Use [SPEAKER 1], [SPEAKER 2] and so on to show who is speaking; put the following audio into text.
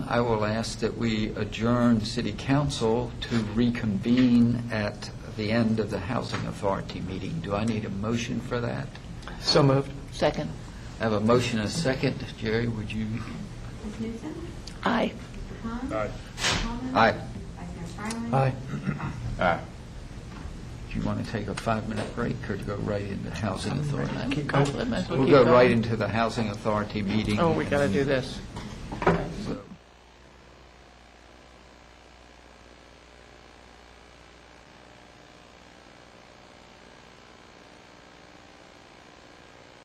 [SPEAKER 1] I will ask that we adjourn city council to reconvene at the end of the housing authority meeting. Do I need a motion for that?
[SPEAKER 2] So moved.
[SPEAKER 3] Second.
[SPEAKER 1] I have a motion and a second. Jerry, would you?
[SPEAKER 4] Ms. Newton?
[SPEAKER 3] Aye.
[SPEAKER 4] Hahn?
[SPEAKER 5] Aye.
[SPEAKER 4] Coleman?
[SPEAKER 1] Aye.
[SPEAKER 4] Vice Mayor Fryland?
[SPEAKER 2] Aye.
[SPEAKER 1] Do you want to take a five-minute break or to go right into housing authority?
[SPEAKER 3] Keep going. Might as well
[SPEAKER 1] We'll
[SPEAKER 3] keep
[SPEAKER 1] go
[SPEAKER 3] going.
[SPEAKER 1] right into the housing authority meeting.
[SPEAKER 3] Oh, we got to do this.
[SPEAKER 1] And